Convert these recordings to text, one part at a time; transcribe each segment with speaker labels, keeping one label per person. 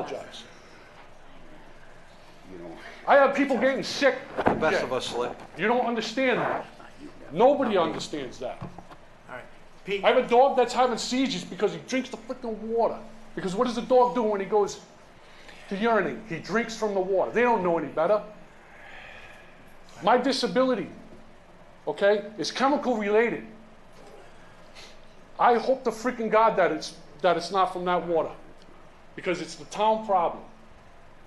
Speaker 1: Apologize.
Speaker 2: You know,
Speaker 1: I have people getting sick.
Speaker 2: the best of us slip.
Speaker 1: You don't understand that. Nobody understands that.
Speaker 3: All right, Pete,
Speaker 1: I have a dog that's having seizures because he drinks the freaking water. Because what does a dog do when he goes to urinate? He drinks from the water. They don't know any better. My disability, okay, is chemical related. I hope to freaking God that it's that it's not from that water. Because it's the town problem.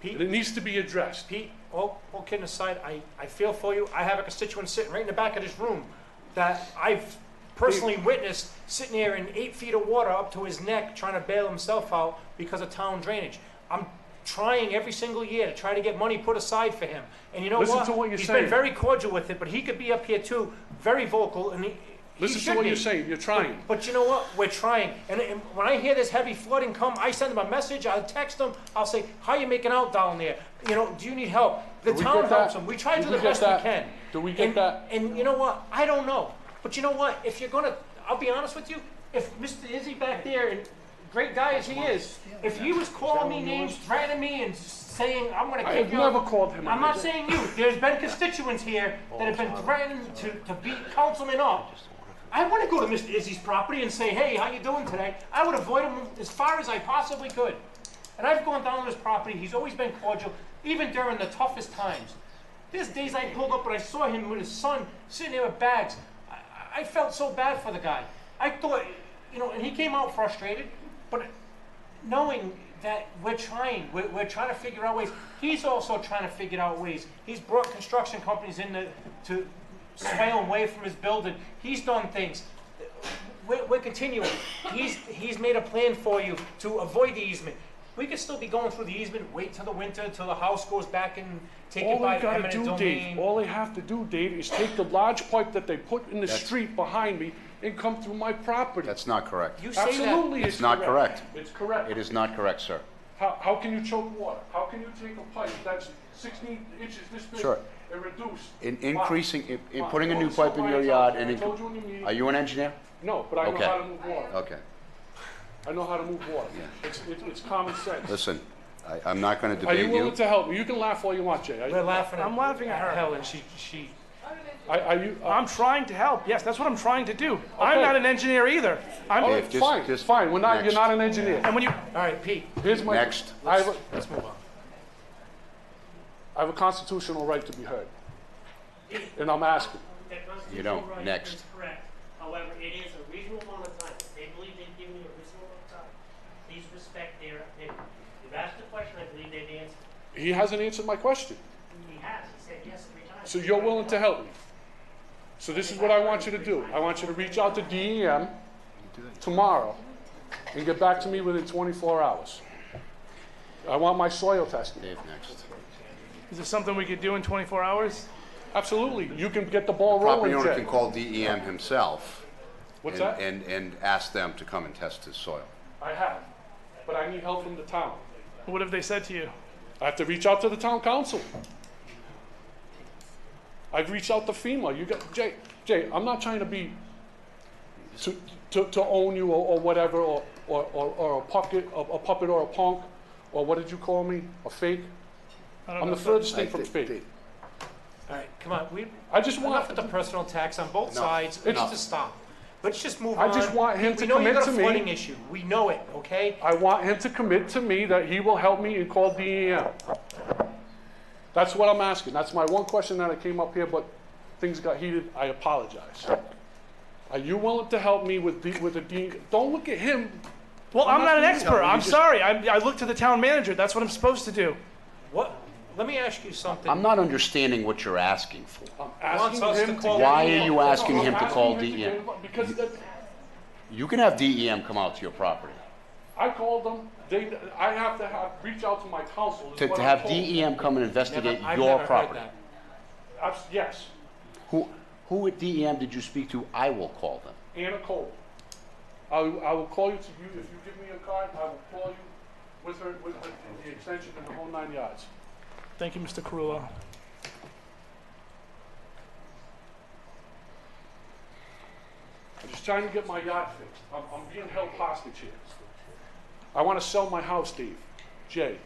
Speaker 1: And it
Speaker 3: Pete,
Speaker 1: needs to be addressed.
Speaker 3: Pete, all, all kidding aside, I, I feel for you. I have a constituent sitting right in the back of this room that I've personally witnessed sitting here in eight feet of water up to his neck trying to bail himself out because of town drainage. I'm trying every single year to try to get money put aside for him. And you know
Speaker 1: Listen
Speaker 3: what?
Speaker 1: to what you're
Speaker 3: He's
Speaker 1: saying.
Speaker 3: been very cordial with it, but he could be up here too, very vocal, and he, he
Speaker 1: Listen to
Speaker 3: should
Speaker 1: what
Speaker 3: be.
Speaker 1: you're saying. You're trying.
Speaker 3: But you know what? We're trying. And, and when I hear this heavy flooding come, I send them a message. I'll text them. I'll say, "How you making out down there? You know, do you need help?" The
Speaker 1: Do we
Speaker 3: town
Speaker 1: get that?
Speaker 3: helps them. We try
Speaker 1: Do
Speaker 3: to
Speaker 1: we
Speaker 3: the
Speaker 1: get
Speaker 3: best
Speaker 1: that?
Speaker 3: we can.
Speaker 1: Do we get
Speaker 3: and,
Speaker 1: that?
Speaker 3: And you know what? I don't know. But you know what? If you're gonna, I'll be honest with you. If Mr. Izzy back there, and great guy as he is, if he was calling me names, threatening me, and saying I'm gonna
Speaker 1: I
Speaker 3: kick
Speaker 1: have
Speaker 3: you out-
Speaker 1: never called him a
Speaker 3: I'm not
Speaker 1: nigger.
Speaker 3: saying you. There's been constituents here that have been threatened to, to beat councilmen up. I want to go to Mr. Izzy's property and say, hey, how you doing today? I would avoid him as far as I possibly could. And I've gone down to his property. He's always been cordial, even during the toughest times. There's days I pulled up and I saw him with his son sitting there with bags. I, I felt so bad for the guy. I thought, you know, and he came out frustrated, but knowing that we're trying, we're, we're trying to figure out ways. He's also trying to figure out ways. He's brought construction companies in to, to sway him away from his building. He's done things. We're, we're continuing. He's, he's made a plan for you to avoid the easement. We could still be going through the easement, wait till the winter, till the house goes back and take it
Speaker 1: All
Speaker 3: by
Speaker 1: they gotta
Speaker 3: eminent
Speaker 1: do,
Speaker 3: domain.
Speaker 1: Dave, all they have to do, Dave, is take the large pipe that they put in the street behind me and come through my property.
Speaker 2: That's not correct.
Speaker 3: you say that.
Speaker 1: Absolutely,
Speaker 2: It's
Speaker 1: it's
Speaker 2: not
Speaker 1: correct.
Speaker 2: correct.
Speaker 1: It's correct.
Speaker 2: It is not correct, sir.
Speaker 1: How, how can you choke water? How can you take a pipe that's sixteen inches this big
Speaker 2: Sure.
Speaker 1: and reduce?
Speaker 2: In
Speaker 1: Why?
Speaker 2: increasing, in- in
Speaker 1: Why?
Speaker 2: putting a
Speaker 1: Well,
Speaker 2: new
Speaker 1: so
Speaker 2: pipe in
Speaker 1: why
Speaker 2: your
Speaker 1: I
Speaker 2: yard
Speaker 1: told
Speaker 2: and,
Speaker 1: you- I told you in the
Speaker 2: in-
Speaker 1: meeting-
Speaker 2: are you an engineer?
Speaker 1: No, but I know
Speaker 2: Okay. Uh,
Speaker 1: how to move water.
Speaker 2: Okay.
Speaker 1: I know how to move water. It's, it- it's common sense.
Speaker 2: Listen, I, I'm not gonna
Speaker 1: Are
Speaker 2: debate
Speaker 1: you willing
Speaker 2: you.
Speaker 1: to help me? You can laugh all you want, Jay.
Speaker 3: We're
Speaker 1: Are-
Speaker 3: laughing at
Speaker 4: I'm laughing at her.
Speaker 3: Helen, she, she,
Speaker 1: Are, are you, uh,
Speaker 4: I'm trying to help. Yes, that's what I'm trying to do.
Speaker 1: Okay.
Speaker 4: I'm not an engineer either. I'm,
Speaker 1: all
Speaker 2: Dave,
Speaker 1: right,
Speaker 2: just-
Speaker 1: fine,
Speaker 2: just
Speaker 1: fine. We're not, you're
Speaker 2: next.
Speaker 1: not an engineer.
Speaker 4: and when you,
Speaker 3: all right, Pete,
Speaker 1: Here's my.
Speaker 2: Next.
Speaker 1: I have, a-
Speaker 3: let's move on.
Speaker 1: I have a constitutional right to be heard. And I'm asking.
Speaker 5: That constitutional
Speaker 2: You don't.
Speaker 5: right
Speaker 2: Next.
Speaker 5: is correct. However, it is a reasonable amount of time. If They believe they've given you a reasonable amount of time. Please respect their opinion. You've asked a question, I believe they've answered.
Speaker 1: He hasn't answered my question.
Speaker 5: He has, he said yes three times.
Speaker 1: So you're willing to help me. So this is what I want you to do. I want you to reach out to DEM tomorrow and get back to me within 24 hours. I want my soil tested.
Speaker 2: Dave, next.
Speaker 4: is this something we could do in 24 hours?
Speaker 1: Absolutely. You can get the ball
Speaker 2: Property
Speaker 1: rolling,
Speaker 2: owner can
Speaker 1: Jay.
Speaker 2: call DEM himself
Speaker 1: What's
Speaker 2: and,
Speaker 1: that?
Speaker 2: and, and ask them to come and test his soil.
Speaker 1: I have, but I need help from the town.
Speaker 4: What have they said to you?
Speaker 1: I have to reach out to the town council. I've reached out to FEMA. You got, Jay, Jay, I'm not trying to be, to, to, to own you or, or whatever, or, or, or, or a puppet, a, a puppet or a punk, or what did you call me? A fake?
Speaker 4: I don't
Speaker 1: I'm
Speaker 4: know
Speaker 1: the
Speaker 4: if
Speaker 1: furthest thing
Speaker 2: I-
Speaker 1: from
Speaker 2: they-
Speaker 1: fake.
Speaker 2: they-
Speaker 3: All right, come on, we,
Speaker 1: I just
Speaker 3: Enough
Speaker 1: want,
Speaker 3: with the personal attacks on both
Speaker 2: Enough.
Speaker 3: sides. Let's
Speaker 2: Enough.
Speaker 3: just stop. Let's just move
Speaker 1: I
Speaker 3: on.
Speaker 1: just want him
Speaker 3: We
Speaker 1: to
Speaker 3: know you
Speaker 1: commit
Speaker 3: got a
Speaker 1: to me.
Speaker 3: flooding issue. We know it, okay?
Speaker 1: I want him to commit to me that he will help me and call DEM. That's what I'm asking. That's my one question that I came up here, but things got heated. I apologize. Are you willing to help me with the, with the D? E Don't look at him.
Speaker 4: Well, I'm not an
Speaker 1: you.
Speaker 4: expert.
Speaker 1: No, you
Speaker 4: I'm
Speaker 1: just-
Speaker 4: sorry. I, I look to the town manager. That's what I'm supposed to do.
Speaker 3: What? Let me ask you something.
Speaker 2: I'm not understanding what you're asking for.
Speaker 1: I'm
Speaker 3: Wants
Speaker 1: asking
Speaker 3: us to
Speaker 1: him to.
Speaker 3: call E
Speaker 1: get
Speaker 2: Why
Speaker 1: involved.
Speaker 2: are you asking
Speaker 1: No, I'm
Speaker 2: him to call E
Speaker 1: asking him
Speaker 2: DEM?
Speaker 1: get involved Because that-
Speaker 2: You can have DEM come out to your property.
Speaker 1: I called them, they, I have to have, reach out to my council. is
Speaker 2: To,
Speaker 1: what
Speaker 2: to
Speaker 1: I'm
Speaker 2: have E
Speaker 1: told.
Speaker 2: DEM come and
Speaker 3: Never-
Speaker 2: investigate
Speaker 3: I've never
Speaker 2: your
Speaker 3: heard
Speaker 2: property.
Speaker 3: that.
Speaker 1: Abs- Yes,
Speaker 2: Who, who at DEM did you speak to? I will call them.
Speaker 1: Anna Cole. I, will- I will call you to you, if you give me a card, I will call you with her, with the, the extension and the whole nine yards.
Speaker 4: Thank you, Mr. Carullo.
Speaker 1: I'm just trying to get my yacht fixed. I'm, I'm being held hostage here. I want to sell my house, Dave. J.